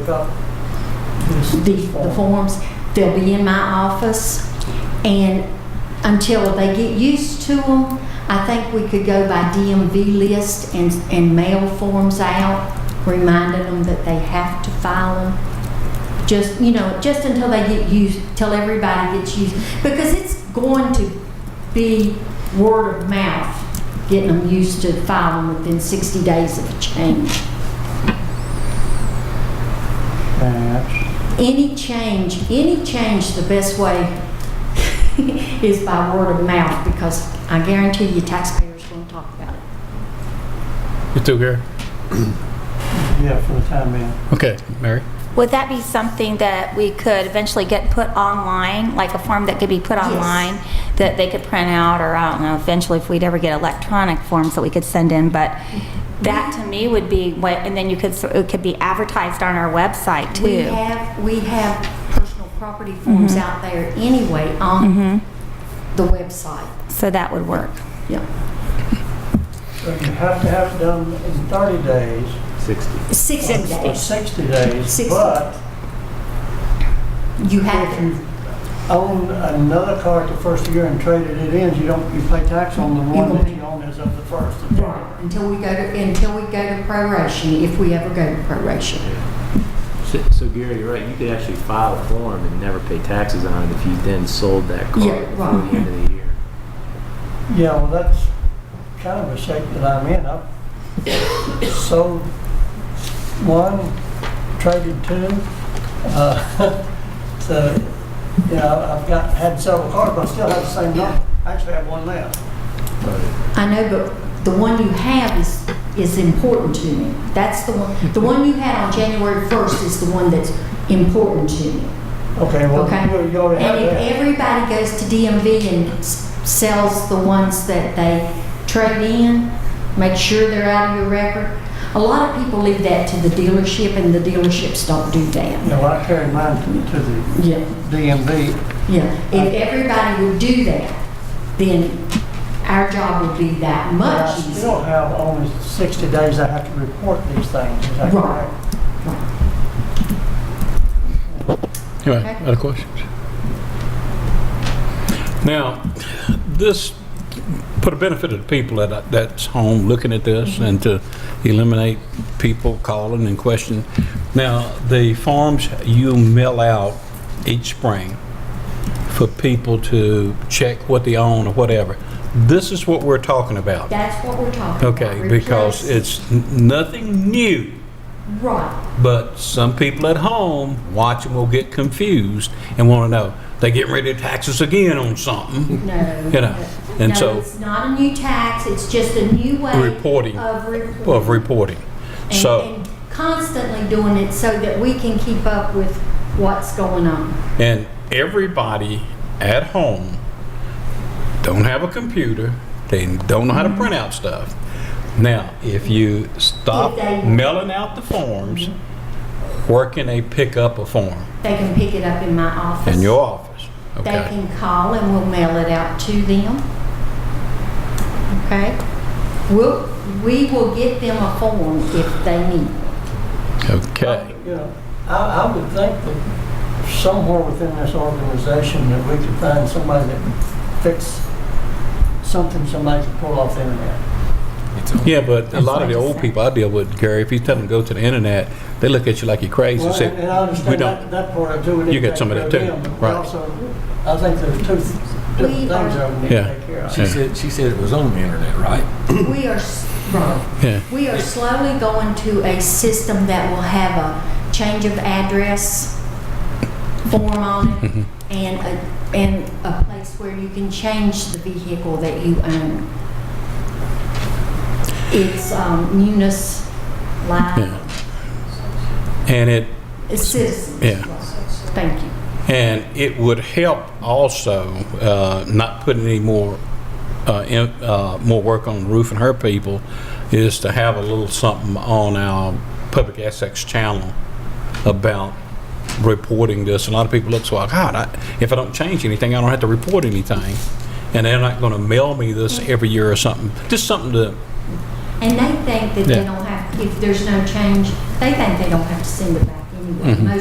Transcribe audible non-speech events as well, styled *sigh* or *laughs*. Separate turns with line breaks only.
about
the, the forms, they'll be in my office, and until they get used to them, I think we could go by DMV list and, and mail forms out, reminding them that they have to file them. Just, you know, just until they get used, till everybody gets used, because it's going to be word of mouth, getting them used to filing within 60 days of a change.
that.
any change, any change, the best way *laughs* is by word of mouth, because I guarantee you taxpayers won't talk about it.
You too, Gary?
Yeah, for the time being.
Okay, Mary?
Would that be something that we could eventually get put online, like a form that could be put
Yes.
online? That they could print out, or I don't know, eventually if we'd ever get electronic forms that we could send in, but
Mm-hmm.
that to me would be what, and then you could, s- it could be advertised on our website
We
too.
have, we have personal property forms out there anyway on the website.
So that would work.
Yeah.
So you have to have it done in 30 days
60.
60
or
days.
60 days,
60.
but
You
if
have,
you own another car at the first year and traded it in, you don't, you pay tax on the one that you own as of the first. of January.
until we go to, until we go to proration, if we ever go to proration.
So, so Gary, you're right, you could actually file a form and never pay taxes on it if you then sold that car
Yeah,
before
right.
the end of the year.
Yeah, well, that's kind of a shape that I'm in. I've sold one, traded two. uh, *laughs* So, you know, I've got, had several cars, but I still have the same number. Actually, I have one left.
I know, but the one you have is, is important to me. That's the one, the one you had on January 1st is the one that's important to me,
Okay, well,
okay?
you you already have
And if
that.
everybody goes to DMV and s- sells the ones that they trade in, make sure they're out of your record. A lot of people leave that to the dealership, and the dealerships don't do
You
that.
know, I carried mine to- to the
Yeah.
DMV.
Yeah, if everybody would do that, then our job would be that
but I
much easier.
still have only 60 days I have to report these things, is that
Right.
correct?
Anyway,
Okay.
other questions? Now, this put a benefit to the people that, that's home looking at this
Mm-hmm.
and to eliminate people calling and questioning. Now, the forms you mail out each spring for people to check what they own or whatever, this is what we're talking about.
That's what we're talking about.
Okay, because
replace-
it's n- nothing new.
Right,
But some people at home watching will get confused and want to know. They getting ready to tax us again on something.
no.
You know, and
No,
so-
it's not a new tax, it's just a new way.
Reporting.
Of reporting.
Of reporting.
Mm-hmm. And-
So,
And constantly doing it so that we can keep up with what's going on.
and everybody at home don't have a computer. They don't know how to print out stuff. Now, if you stop
If they-
mailing out the forms, where can they pick up a form?
They can pick it up in my office.
In your office.
They
Okay.
can call and we'll mail it out to them. Okay? We'll, we will get them a form if they need.
Okay.
You know, I, I would think that somewhere within this organization that we could find somebody that could fix something somebody could pull off the internet.
Yeah, but a
That's
lot
what
of the
I just
old
said.
people I deal with, Gary, if you tell them to go to the internet, they look at you like you're crazy and
Well, And and I
say, we
understand
don't.
that, that part of it too. We
You
didn't
got
take
some of that
care
too,
them, but we
right.
also, I think there's two th- different
We
things
are-
that we need to
Yeah.
take care of.
Yeah.
She said, she said it was on the internet, right?
We are, s- right.
Yeah,
We are slowly going to a system that will have a change of address form on it
Mm-hmm.
and a, and a place where you can change the vehicle that you own. It's, um, Munis Live
yeah. And it,
Citizens.
Yeah.
Thank you.
and it would help also, uh, not putting any more, uh, in, uh, more work on Ruth and her people, is to have a little something on our public assets channel about reporting this. A lot of people look, so like, God, I- if I don't change anything, I don't have to report anything. And they're not going to mail me this every year or something. Just something to,
And they think that they
Yeah.
don't have, if there's no change, they think they don't have to send it back anyway.
Mm-hmm.
anyway. Most